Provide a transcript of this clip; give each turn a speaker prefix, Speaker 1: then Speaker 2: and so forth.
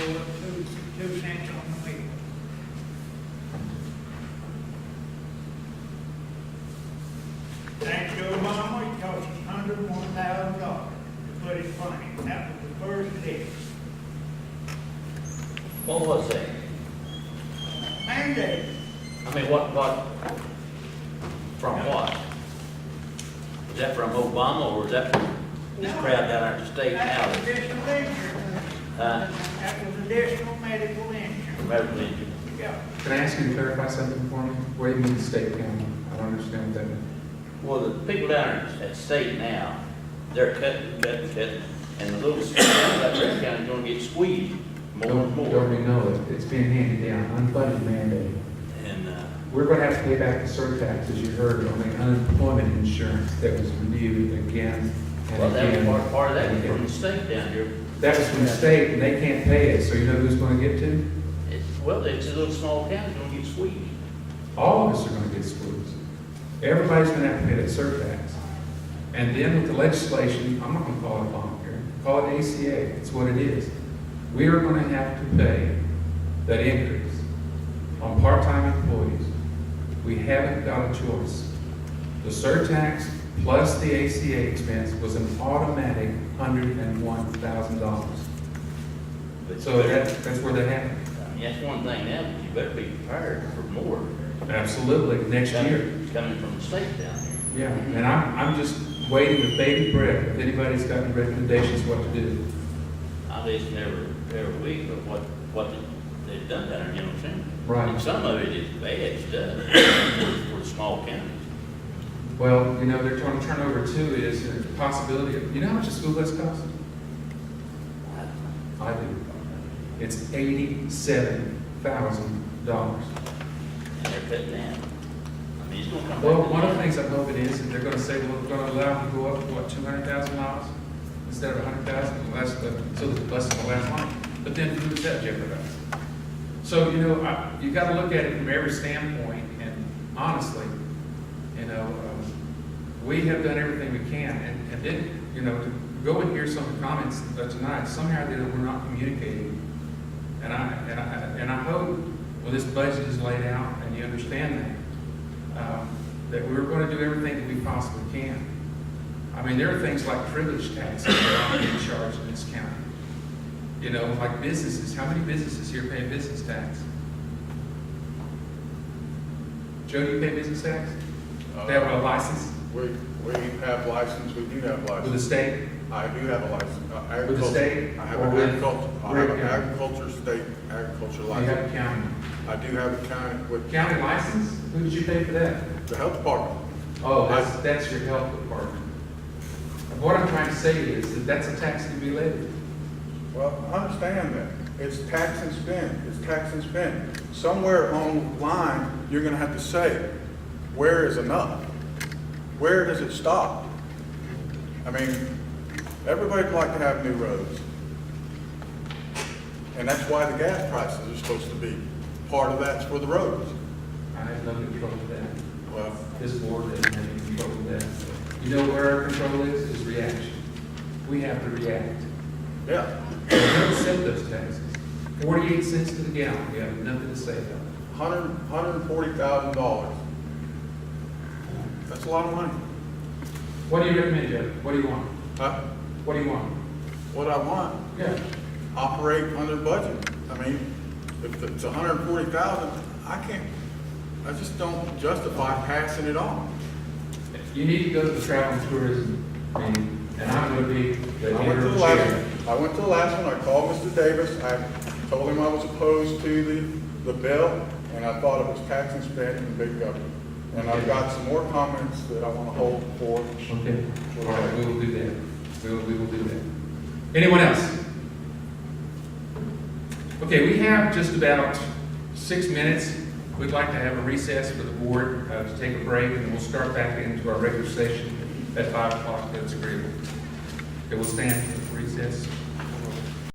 Speaker 1: What was that?
Speaker 2: mandate.
Speaker 1: I mean, what, what, from what? Is that from Obama or is that from this crowd down there at the state
Speaker 2: That was
Speaker 1: house?
Speaker 2: additional insurance.
Speaker 1: Huh?
Speaker 2: That was additional medical insurance,
Speaker 1: American Legion.
Speaker 2: yeah.
Speaker 3: Can I ask you to clarify something for me? What do you mean state county? I don't understand what that. means.
Speaker 1: Well, the people down there at state now, they're cutting, cutting, cutting, and the little school down there, that county's gonna get squeezed more and
Speaker 3: Don't,
Speaker 1: more.
Speaker 3: don't we know it? It's being handed down, unfunded mandate.
Speaker 1: And, uh,
Speaker 3: We're gonna have to pay back the surtax, as you heard, on the unemployment insurance that was renewed again
Speaker 1: well,
Speaker 3: and
Speaker 1: that was
Speaker 3: again.
Speaker 1: part, part of that, was from the state down here.
Speaker 3: That was from the state, and they can't pay it, so you know who's gonna get to?
Speaker 1: It's, well, it's a little small county, gonna get squeezed.
Speaker 3: All of us are gonna get squeezed. Everybody's gonna have to pay that surtax. And then with the legislation, I'm not gonna call it voluntary, call it ACA, it's what it is. We are gonna have to pay that increase on part-time employees. We haven't got a choice. The surtax plus the ACA expense was an automatic hundred and one thousand dollars.
Speaker 1: But
Speaker 3: So that, that's where that happened.
Speaker 1: I mean, that's one thing now, but you better be prepared for more.
Speaker 3: Absolutely, next year.
Speaker 1: coming- Coming from the state down here.
Speaker 3: Yeah, and I'm, I'm just waiting with bated breath, if anybody's got any recommendations what to do.
Speaker 1: I just never, every week, but what, what they- they've done down there, you know what I'm saying?
Speaker 3: Right.
Speaker 1: And some of it is bad stuff for the small counties.
Speaker 3: Well, you know, they're trying to turn over too is the possibility of, you know how much a school bus costs? I do. It's eighty-seven thousand dollars.
Speaker 1: And they're cutting down. I mean, it's gonna come back.
Speaker 3: Well,
Speaker 1: to
Speaker 3: one of the
Speaker 1: that.
Speaker 3: things I'm hoping is that they're gonna say, well, we're gonna allow them to go up, what, two hundred thousand miles? Instead of a hundred thousand, less, so that the bus will last longer. But then who's that jeopardized? So, you know, I, you gotta look at it from every standpoint, and honestly, you know, um, we have done everything we can, and, and then, you know, to go and hear some comments uh, tonight, somehow that we're not communicating. And I, and I, and I hope, well, this budget is laid out, and you understand that, um, that we're gonna do everything that we possibly can. I mean, there are things like privilege taxes that are being charged in this county. You know, like businesses, how many businesses here pay business tax? Joe, do you pay business tax? They have a license
Speaker 4: We, we have license, we do have
Speaker 3: with the
Speaker 4: license.
Speaker 3: state?
Speaker 4: I do have a license. uh,
Speaker 3: With the
Speaker 4: agriculture.
Speaker 3: state
Speaker 4: I have
Speaker 3: or
Speaker 4: an
Speaker 3: with-
Speaker 4: agriculture, I
Speaker 3: with
Speaker 4: have an
Speaker 3: county?
Speaker 4: agriculture, state agriculture
Speaker 3: You have a
Speaker 4: license.
Speaker 3: county.
Speaker 4: I do have a county with
Speaker 3: County license? Who did you pay for that?
Speaker 4: the health department.
Speaker 3: Oh, that's, that's your health department. And What I'm trying to say is that that's a tax to be levied.
Speaker 4: Well, I understand that. It's tax and spend, it's tax and spend. Somewhere on the line, you're gonna have to say, where is enough? Where does it stop? I mean, everybody'd like to have new roads. And that's why the gas prices are supposed to be, part of that's for the roads.
Speaker 3: I have no control of that.
Speaker 4: Well,
Speaker 3: This board doesn't have any control of that. You know where our control is, is reaction. We have to react.
Speaker 4: yeah,
Speaker 3: We don't set those taxes. Forty-eight cents to the gallon, we have nothing to say about it.
Speaker 4: hundred, hundred and forty thousand dollars. That's a lot of money.
Speaker 3: What do you recommend, Joe? What do you want?
Speaker 4: Uh,
Speaker 3: What do you want?
Speaker 4: What I want
Speaker 3: Yeah.
Speaker 4: operate under budget. I mean, if it's a hundred and forty thousand, I can't, I just don't justify passing it on.
Speaker 3: You need to go to the travel and tourism meeting, and I'm gonna be the
Speaker 4: I went to
Speaker 3: interim
Speaker 4: the
Speaker 3: chair.
Speaker 4: last, I went to the last one, I called Mr. Davis, I told him I was opposed to the, the bill, and I thought it was tax and spend and big government. And I've got some more comments that I wanna hold for.
Speaker 3: Okay, all right, we will do that. We will, we will do that. Anyone else? Okay, we have just about six minutes. We'd like to have a recess for the board uh, to take a break, and we'll start back into our regular session at five o'clock, if that's agreeable. Okay, we'll stand for recess.